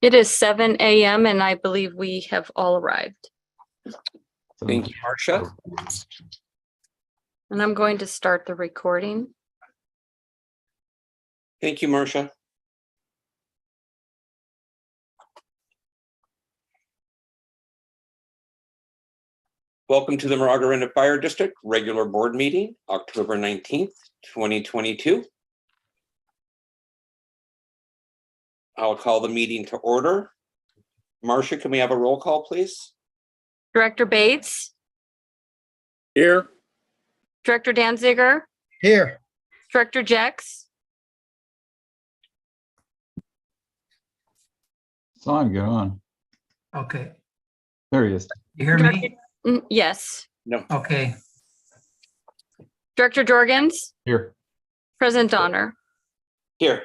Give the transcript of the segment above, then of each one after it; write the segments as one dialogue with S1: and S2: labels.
S1: It is seven AM and I believe we have all arrived.
S2: Um,
S3: Thank you, Marcia.
S1: And I'm going to start the recording.
S3: Thank you, Marcia. Welcome to the Maragareta Fire District Regular Board Meeting, October nineteenth, twenty twenty-two. I'll call the meeting to order. Marcia, can we have a roll call, please?
S1: Director Bates,
S4: Here.
S1: Director Danziger,
S4: Here.
S1: Director Jex,
S2: Song, get on.
S5: Okay,
S2: There he is.
S5: you hear me?
S1: Mm, yes,
S5: Okay,
S1: Director Jorgens,
S2: Here.
S1: President Donner.
S3: Here.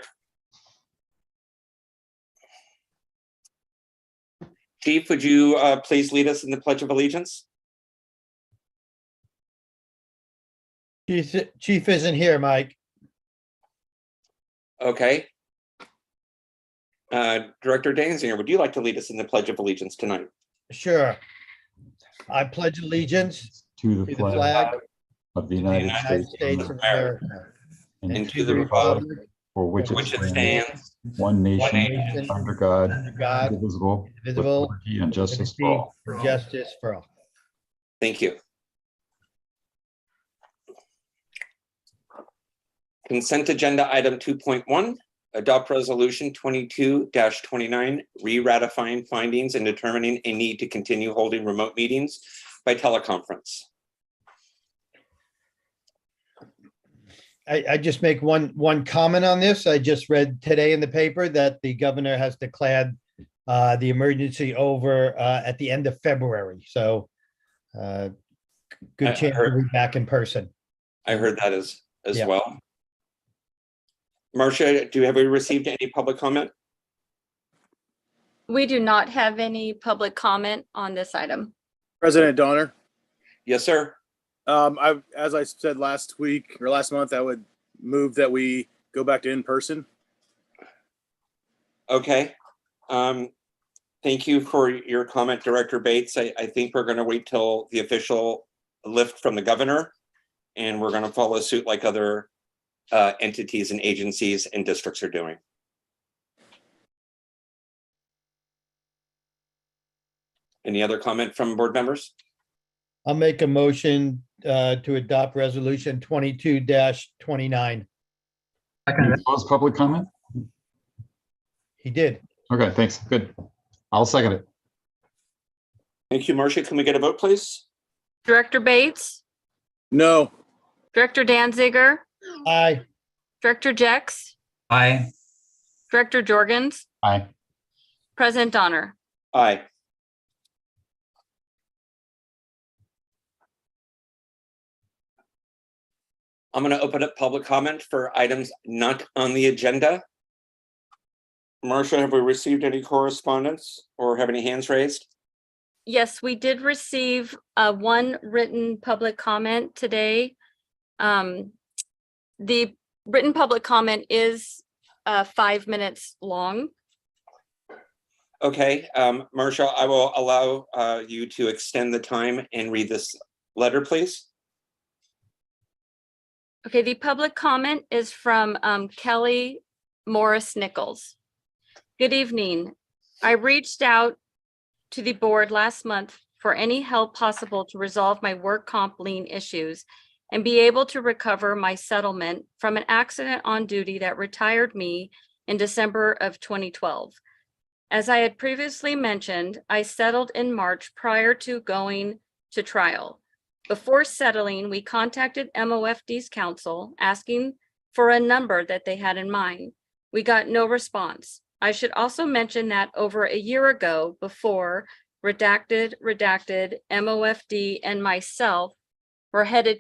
S3: Chief, would you uh, please lead us in the Pledge of Allegiance?
S4: Chief, chief isn't here, Mike.
S3: Okay. Uh, Director Danziger, would you like to lead us in the Pledge of Allegiance tonight?
S4: Sure. I pledge allegiance
S2: To
S4: to
S2: the
S4: the flag
S2: flag
S4: of
S2: of the
S4: the
S2: United
S4: United States of
S2: States
S4: America
S2: and
S3: America,
S2: to the republic for which
S3: Which it
S2: it stands,
S3: stands,
S2: one
S3: nation,
S2: nation, under God,
S4: under God,
S2: indivisible, with
S4: indivisible,
S2: liberty and justice
S4: liberty
S2: for all.
S4: for justice for all.
S3: Thank you. Consent Agenda Item two point one, adopt Resolution twenty-two twenty-nine, re-ratifying findings and determining a need to continue holding remote meetings by teleconference.
S4: I, I just make one, one comment on this. I just read today in the paper that the governor has declared uh, the emergency over uh, at the end of February, so uh,
S3: I- I
S4: good chance
S3: heard-
S4: we'll be back in person.
S3: I heard that as, as
S4: Yeah.
S3: well. Marcia, do, have we received any public comment?
S1: We do not have any public comment on this item.
S6: President Donner,
S3: Yes, sir.
S6: um, I, as I said last week or last month, I would move that we go back to in person.
S3: Okay. Um, thank you for your comment, Director Bates. I, I think we're gonna wait till the official lift from the governor. And we're gonna follow suit like other uh, entities and agencies and districts are doing. Any other comment from board members?
S4: I'll make a motion uh, to adopt resolution twenty-two twenty-nine.
S5: second,
S2: That was public comment?
S4: He did.
S2: Okay, thanks. Good. I'll second it.
S3: Thank you, Marcia. Can we get a vote, please?
S1: Director Bates,
S6: No,
S1: Director Danziger,
S4: Aye.
S1: Director Jex,
S5: aye,
S1: Director Jorgens,
S2: Aye.
S1: President Donner.
S3: Aye. I'm going to open up public comment for items not on the agenda. Marcia, have we received any correspondence or have any hands raised?
S1: Yes, we did receive uh one written public comment today. Um, the written public comment is uh five minutes long.
S3: Okay, um, Marcia, I will allow uh, you to extend the time and read this letter, please.
S1: Okay, the public comment is from um, Kelly Morris Nichols. Good evening. I reached out to the board last month for any help possible to resolve my work comp lien issues and be able to recover my settlement from an accident on duty that retired me in December of 2012. As I had previously mentioned, I settled in March prior to going to trial. Before settling, we contacted MOFD's counsel asking for a number that they had in mind. We got no response. I should also mention that over a year ago, before redacted, redacted, MOFD and myself were headed